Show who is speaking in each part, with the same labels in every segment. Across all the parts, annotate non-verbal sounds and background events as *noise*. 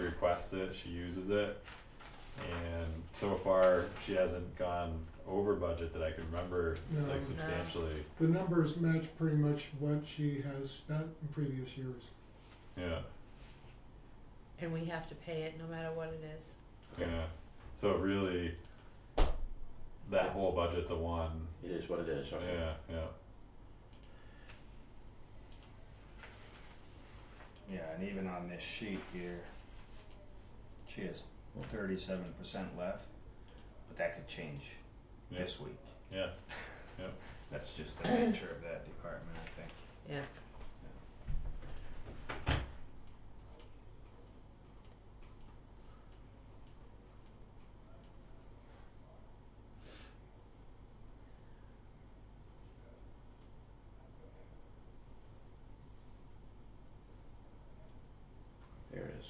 Speaker 1: requests it, she uses it. And so far, she hasn't gone over budget that I can remember,
Speaker 2: No. No.
Speaker 1: like substantially,
Speaker 2: The numbers match pretty much what she has spent in previous years.
Speaker 1: yeah,
Speaker 3: and we have to pay it no matter what it is.
Speaker 1: yeah. So really, that whole budget's a one,
Speaker 4: It is what it is, okay.
Speaker 1: yeah, yeah,
Speaker 5: Yeah, and even on this sheet here, she has thirty-seven percent left, but that could change
Speaker 1: Yeah.
Speaker 5: this week.
Speaker 1: yeah,
Speaker 5: That's just *clears throat* the nature of that department, I think.
Speaker 3: Yeah.
Speaker 4: There it is.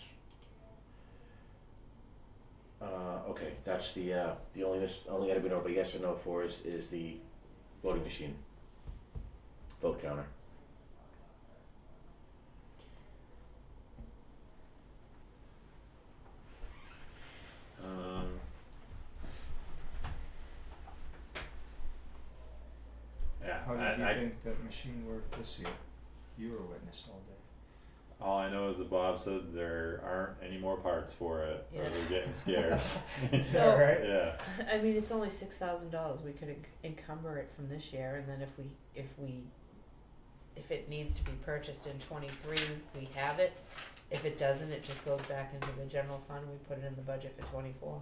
Speaker 4: Uh, okay, that's the, uh, the only, mis- only item we know, but yes or no for is, is the voting machine. Vote counter. Um.
Speaker 1: yeah.
Speaker 5: How
Speaker 1: I-
Speaker 5: did you
Speaker 1: I-
Speaker 5: think that machine worked this year? You were witness all day.
Speaker 1: All I know is that Bob said there aren't any more parts for it, or
Speaker 3: Yeah.
Speaker 1: they're getting scarce.
Speaker 5: *laughs*
Speaker 3: So-
Speaker 5: Alright.
Speaker 1: yeah,
Speaker 3: I mean, it's only six thousand dollars. We could enc- encumber it from this year, and then if we if we if it needs to be purchased in twenty three, we have it. If it doesn't, it just goes back into the general fund. We put it in the budget for twenty four.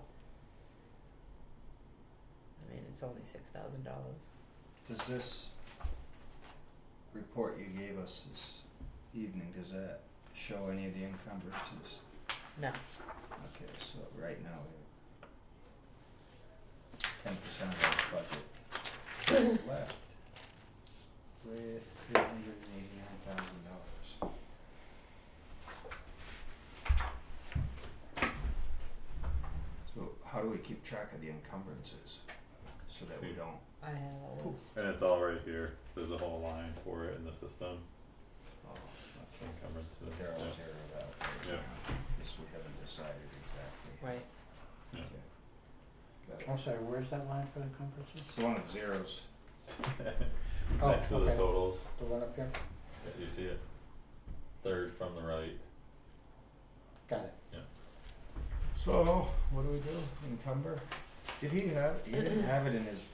Speaker 3: I mean, it's only six thousand dollars.
Speaker 5: Does this report you gave us this evening, does that show any of the encumbrances?
Speaker 3: No,
Speaker 5: Okay, so right now we have ten percent of our budget left. With three hundred and eighty-nine thousand dollars. So how do we keep track of the encumbrances so that we
Speaker 1: Hmm.
Speaker 5: don't,
Speaker 3: I have a list.
Speaker 1: and it's all right here. There's a whole line for it in the system.
Speaker 5: oh, okay,
Speaker 1: Encumbrance, uh,
Speaker 5: they're all
Speaker 1: yeah.
Speaker 5: zeroed out right
Speaker 1: Yeah.
Speaker 5: now, this we haven't decided exactly.
Speaker 3: Right.
Speaker 1: Yeah.
Speaker 5: Okay. Got it.
Speaker 6: I'm sorry, where's that line for the conferences?
Speaker 5: It's the one with zeros.
Speaker 1: *laughs*
Speaker 6: Oh,
Speaker 1: Next to the
Speaker 6: okay.
Speaker 1: totals,
Speaker 6: The one up here?
Speaker 1: you see it? Third from the right.
Speaker 6: Got it.
Speaker 5: So, what do we do? Encumber? Did he have, he didn't have it in his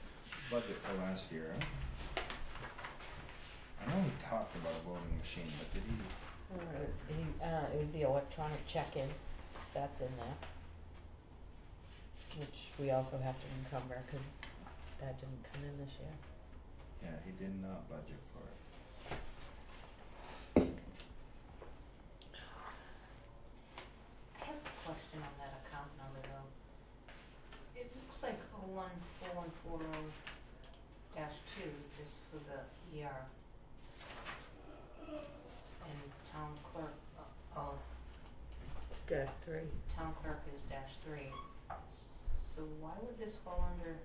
Speaker 5: budget for last year, huh? I know he talked about a voting machine, but did he,
Speaker 3: All right. He, uh, it was the electronic check in. That's in there. Which we also have to encumber because that didn't come in this year.
Speaker 5: yeah, he did not budget for it.
Speaker 7: I have a question on that account number though. It looks like oh one four one four oh dash two is for the ER. And town clerk, uh, oh,
Speaker 3: Dash three.
Speaker 7: town clerk is dash three. So why would this fall under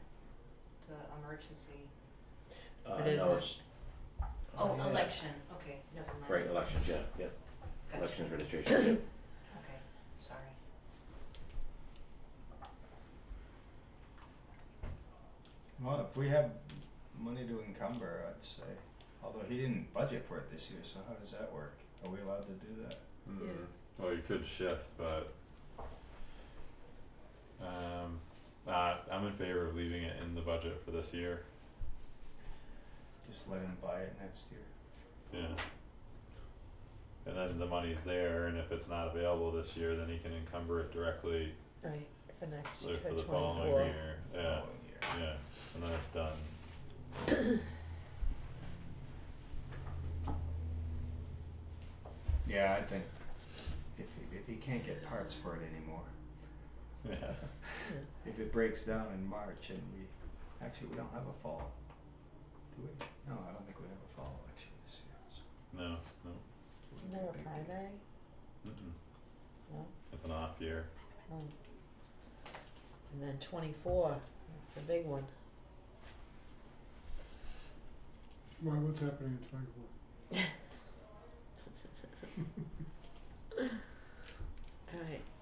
Speaker 7: the emergency?
Speaker 4: Uh,
Speaker 3: It
Speaker 4: no,
Speaker 3: isn't.
Speaker 4: it's,
Speaker 7: Oh,
Speaker 6: yeah.
Speaker 7: election, okay, never mind.
Speaker 4: right, elections, yeah, yeah,
Speaker 7: Gotcha.
Speaker 4: elections registration, yeah.
Speaker 7: Okay, sorry.
Speaker 5: Well, if we have money to encumber, I'd say, although he didn't budget for it this year, so how does that work? Are we allowed to do that?
Speaker 1: Mm.
Speaker 6: Mm-hmm.
Speaker 1: Well, you could shift, but um, uh, I'm in favor of leaving it in the budget for this year.
Speaker 5: Just let him buy it next year?
Speaker 1: Yeah. And then the money's there, and if it's not available this year, then he can encumber it directly
Speaker 3: Right. For next
Speaker 1: for
Speaker 3: year,
Speaker 1: for the
Speaker 3: twenty
Speaker 1: following
Speaker 3: four.
Speaker 1: year. Yeah,
Speaker 5: Following year.
Speaker 1: yeah, and then it's done. *laughs*
Speaker 5: Yeah, I think if he, if he can't get parts for it anymore,
Speaker 1: Yeah,
Speaker 5: If it breaks down in March and we, actually, we don't have a fall, do we? No, I don't think we have a fall election this year, so.
Speaker 1: no, no,
Speaker 5: it
Speaker 3: Isn't
Speaker 5: wouldn't be
Speaker 3: there a
Speaker 5: a big deal.
Speaker 3: primary?
Speaker 1: mm-mm,
Speaker 3: No.
Speaker 1: it's an off year.
Speaker 3: Oh. And then twenty four. That's the big one.
Speaker 2: Why, what's happening in twenty-four?
Speaker 3: All right.